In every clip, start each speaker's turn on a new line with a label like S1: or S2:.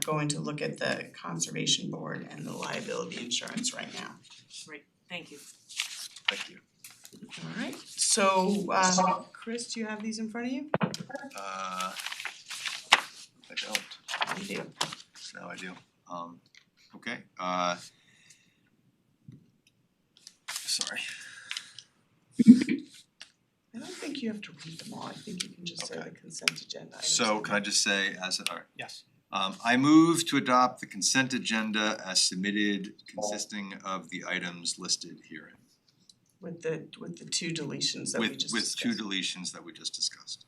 S1: going to look at the conservation board and the liability insurance right now.
S2: Thank you.
S3: Thank you.
S1: Alright, so um Chris, do you have these in front of you?
S3: Uh, I don't,
S1: You do.
S3: now I do. Um, okay, uh. Sorry,
S1: I don't think you have to read them all, I think you can just say the consent agenda items.
S3: so can I just say as, alright,
S4: Yes.
S3: Um I move to adopt the consent agenda as submitted consisting of the items listed herein.
S1: With the with the two deletions that we
S3: With
S1: just
S3: with two
S1: discussed.
S3: deletions that we just discussed.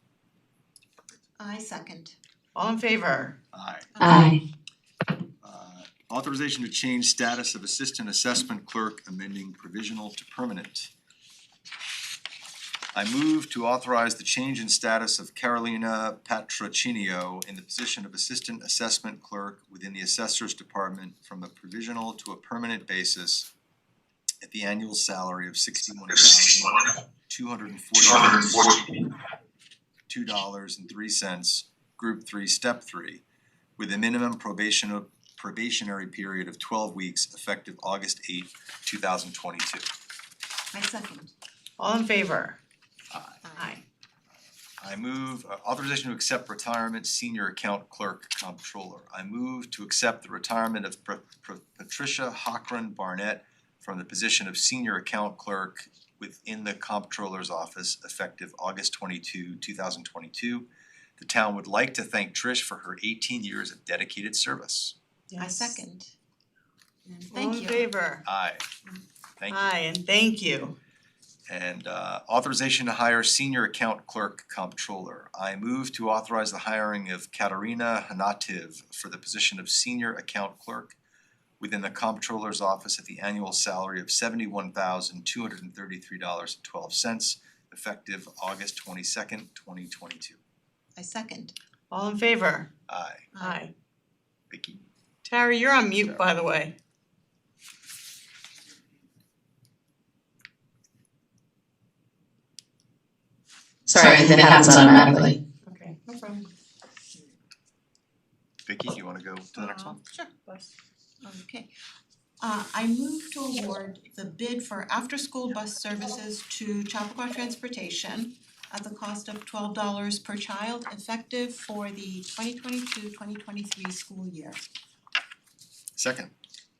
S5: I second.
S1: All in favor?
S3: Aye.
S6: Aye.
S3: Uh authorization to change status of assistant assessment clerk amending provisional to permanent. I move to authorize the change in status of Carolina Patrocinio in the position of assistant assessment clerk within the assessor's department from a provisional to a permanent basis at the annual salary of sixty-one thousand two hundred and forty two dollars and three cents, group three, step three, with a minimum probation probationary period of twelve weeks effective August eighth, two thousand twenty-two.
S5: I second.
S1: All in favor?
S5: Aye.
S3: I move uh, authorization to accept retirement senior account clerk comptroller. I move to accept the retirement of Pr- Pr- Patricia Hockren Barnett from the position of senior account clerk within the comptroller's office effective August twenty-two, two thousand twenty-two. The town would like to thank Trish for her eighteen years of dedicated service.
S5: I
S1: Yes.
S5: second. And thank
S1: All in
S5: you.
S1: favor?
S3: Aye. Thank you.
S1: Aye, and thank you.
S3: And uh authorization to hire senior account clerk comptroller. I move to authorize the hiring of Katerina Hanativ for the position of senior account clerk within the comptroller's office at the annual salary of seventy-one thousand two hundred and thirty-three dollars and twelve cents effective August twenty-second, twenty twenty-two.
S5: I second.
S1: All in favor?
S3: Aye,
S1: Aye.
S3: Vicky.
S1: Tara, you're on mute, by the way.
S6: Sorry, that happens automatically.
S1: Okay, no problem.
S3: Vicky, you wanna go to the next one?
S5: Um, Sure. Okay. Uh, I move to award the bid for after-school bus services to Chappaqua Transportation at the cost of twelve dollars per child effective for the 2022-2023 school year.
S3: Second,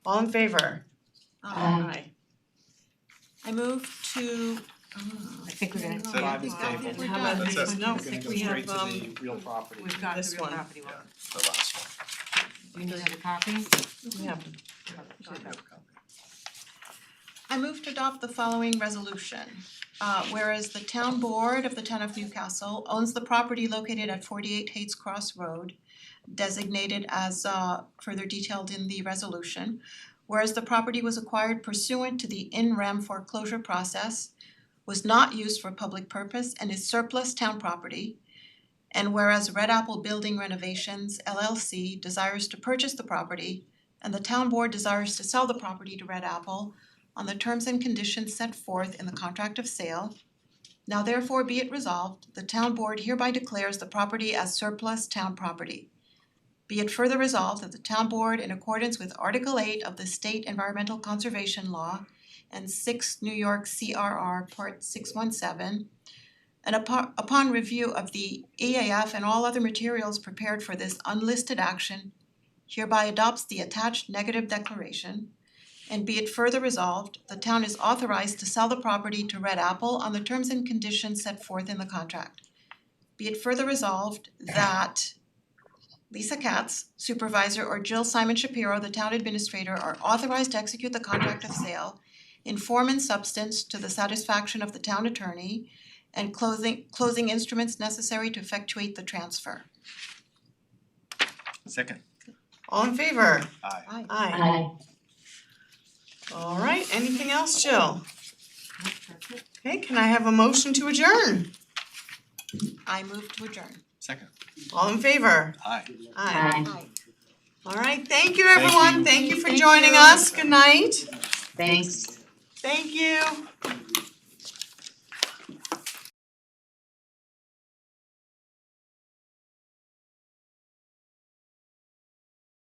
S1: All in favor?
S2: Um,
S5: Uh,
S6: Aye.
S5: I move to, oh,
S2: I think we're gonna have to.
S3: So
S5: I
S3: Five
S5: think
S3: is
S5: I
S3: tabled.
S5: think we're
S2: How
S5: done.
S2: about
S3: That's
S2: this
S3: it.
S2: one?
S1: No,
S2: I think we
S4: We're
S2: have,
S4: gonna go straight
S2: um,
S4: to the real property.
S2: we've got
S1: This
S2: the real
S1: one.
S2: property one.
S3: Yeah. the last one.
S2: Do you need a copy?
S1: Yeah.
S3: We have a copy.
S5: I move to adopt the following resolution. Uh whereas the town board of the town of Newcastle owns the property located at forty eight Hayes Cross Road designated as uh further detailed in the resolution. Whereas the property was acquired pursuant to the in rem foreclosure process, was not used for public purpose and is surplus town property. And whereas Red Apple Building Renovations LLC desires to purchase the property and the town board desires to sell the property to Red Apple on the terms and conditions set forth in the contract of sale. Now therefore be it resolved, the town board hereby declares the property as surplus town property. Be it further resolved that the town board, in accordance with Article eight of the State Environmental Conservation Law and six New York CRR Part six one seven, and upon upon review of the EAF and all other materials prepared for this unlisted action, hereby adopts the attached negative declaration and be it further resolved, the town is authorized to sell the property to Red Apple on the terms and conditions set forth in the contract. Be it further resolved that Lisa Katz, supervisor, or Jill Simon Shapiro, the town administrator, are authorized to execute the contract of sale in form and substance to the satisfaction of the town attorney and closing closing instruments necessary to effectuate the transfer.
S3: Second,
S1: All in favor?
S3: aye.
S5: Aye.
S1: Aye.
S6: Aye.
S1: All right, anything else, Jill?
S2: Nope, that's it.
S1: Okay, can I have a motion to adjourn?
S5: I move to adjourn.
S3: Second,
S1: All in favor?
S3: aye.
S1: Aye.
S6: Aye.
S1: All right, thank you,
S3: Thank
S1: everyone.
S3: you.
S1: Thank you for
S5: Thank
S1: joining
S5: you.
S1: us. Good night.
S6: Thanks.
S1: Thank you.